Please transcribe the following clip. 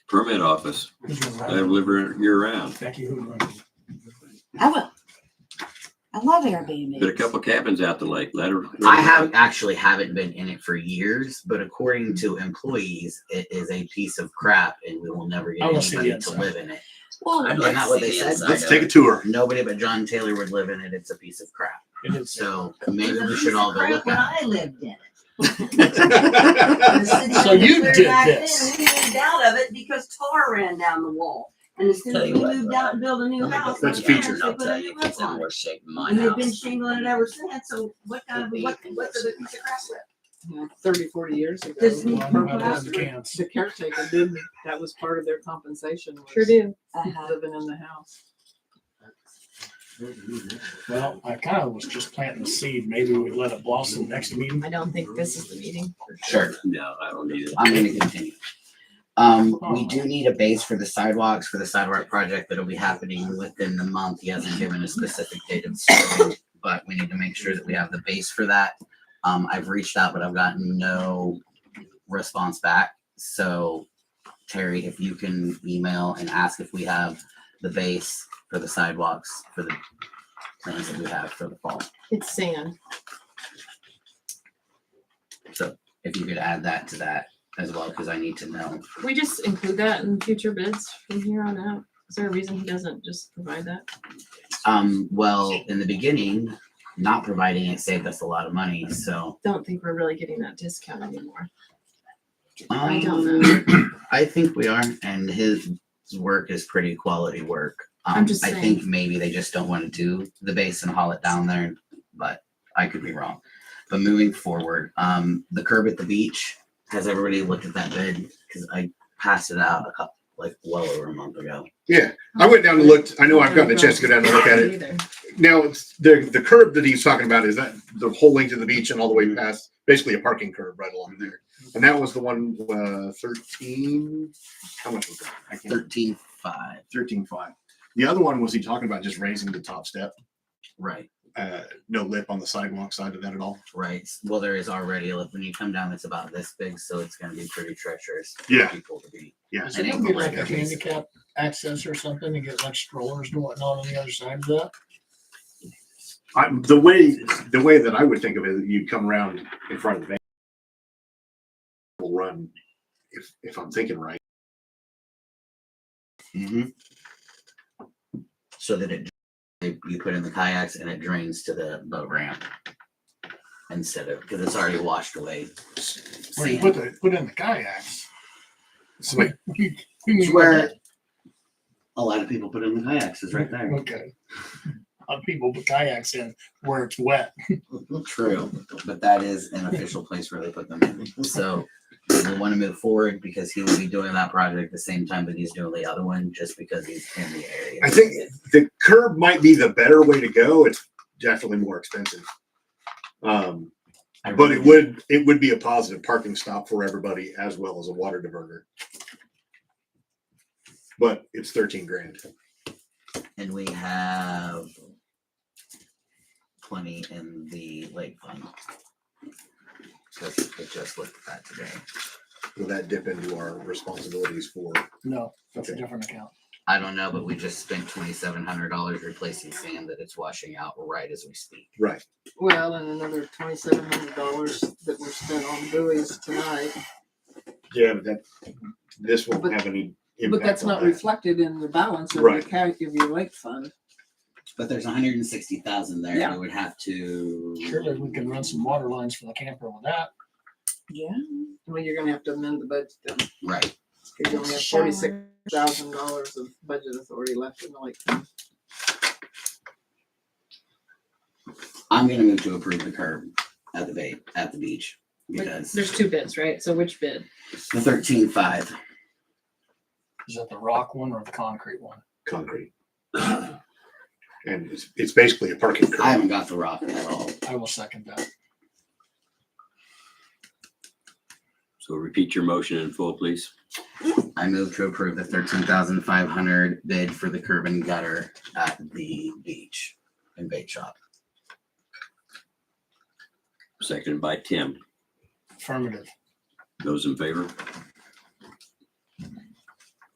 permit office. I live here year round. Becky Hoodrun. I would. I love Did a Airbnb. couple cabins out the lake. Let her. I have actually haven't been in it for years, but Hmm. according to employees, it is a piece of crap, and we will never get I will see anybody the to inside. live in it. Well, I'd Isn't that what they said? Let's take a tour. Nobody but John Taylor would live in it. It's a piece of crap. It is. So maybe we should all go look When at. I lived in it. The That's city So lived you there did back then, this. We moved out of it because tar ran down the wall. And as soon Tell as we you what, moved out and built a new house. That's my a feature. parents, I'll They put a tell you, new it's roof in on it. worse shape than mine And they've been house. shingling it ever since, so what kind of, what, what's the piece of crap with? you know, 30, 40 years ago. This Well, new I know how purple to house. have the cans. The caretaker did, that was part of their compensation was Sure do. uh-huh. living in the house. Well, I kind of was just planting the seed. Maybe we let it blossom next meeting. I don't think this is the meeting. Sure, No, I don't need it. I'm gonna continue. Um, we do need a base for the sidewalks for the sidewalk project that'll be happening within the month. He hasn't given a specific date of starting, but we need to make sure that we have the base for that. Um, I've reached out, but I've gotten no response back. So Terry, if you can email and ask if we have the base for the sidewalks for the plans that we have for the fall. It's sand. So if you could add that to that as well, because I need to know Can We just include that in future bids from here on out. Is there a reason he doesn't just provide that? Um, well, in the beginning, not providing it saved us a lot of money, so. Don't think we're really getting that discount anymore. um, I don't know. I think we are, and his work is pretty quality work. Um, I'm just I think maybe they just don't want to do the base and haul it down there, but I could be wrong. But moving forward, um, the curb at the beach, has everybody looked at that bid? Cause I passed it out a couple, like well over a month ago. I went down and looked. I know I've gotten a chance to go down and look at it. Either. Now, it's- the, the curb that he's talking about, is that the whole length of the beach and all the way past, basically a parking curb right along there. And that was the one, uh, thirteen, how much was that? I can't, Thirteen five, thirteen five. The other one was he talking about just raising the top step, right, uh, no lip on the sidewalk side of that at all? right. Well, there is already, a when you come down, it's about this big, so it's gonna be pretty treacherous. for Yeah. People to be. Yeah. Should we get like a handicap access or something and get like strollers and whatnot on the other side of that? I, the way, the way that I would think of it, you come around in front of the van. Will run, if, if I'm thinking right. Mm-hmm. So that it, you put in the kayaks and it drains to the boat ramp instead of, because it's already washed away. Where you sand. put the, put in the kayaks. So we, we- we It's need like where a lot of people put in the kayaks is right a- there. Okay. A lot of people put kayaks in where it's wet. True, but that is an official place where they put them in. So we want to move forward because he will be doing that project the same time that he's doing the other one, just because he's in the area. I think the curb might be the better way to go. It's definitely more expensive. Um, I but really it would, it would be a positive parking stop for everybody as well as a water diverter. But it's thirteen grand. And we have plenty in the lake fund. Just, I just looked at that today. Will that dip into our responsibilities for? No, that's a Okay. different account. I don't know, but we just spent twenty-seven hundred dollars replacing sand that it's washing out right as we speak. Right. Well, and another twenty-seven hundred dollars that were spent on buoys tonight, Yeah, but that, this won't But- have any. but impact that's on not that. reflected in the balance of your Right. ca- of your lake fund. But there's $160,000 there. Yeah. We would have to. Surely we can run some water lines for the camper with that. Yeah. Well, you're gonna have to amend the budget then, Right. because you only have forty-six thousand dollars of budget authority left in the lake fund. I'm gonna move to approve the curb at the bay, at the beach because There's two bids, right? So which bid? the thirteen-five. Is that the rock one or the concrete one? Concrete. And it's, it's basically a parking I curb. haven't got the rock at all. I will second that. So repeat your motion in full, please. I move to approve the thirteen thousand five hundred bid for the curb and gutter at the beach and bait shop. Seconded by Tim. Affirmative. Those in favor?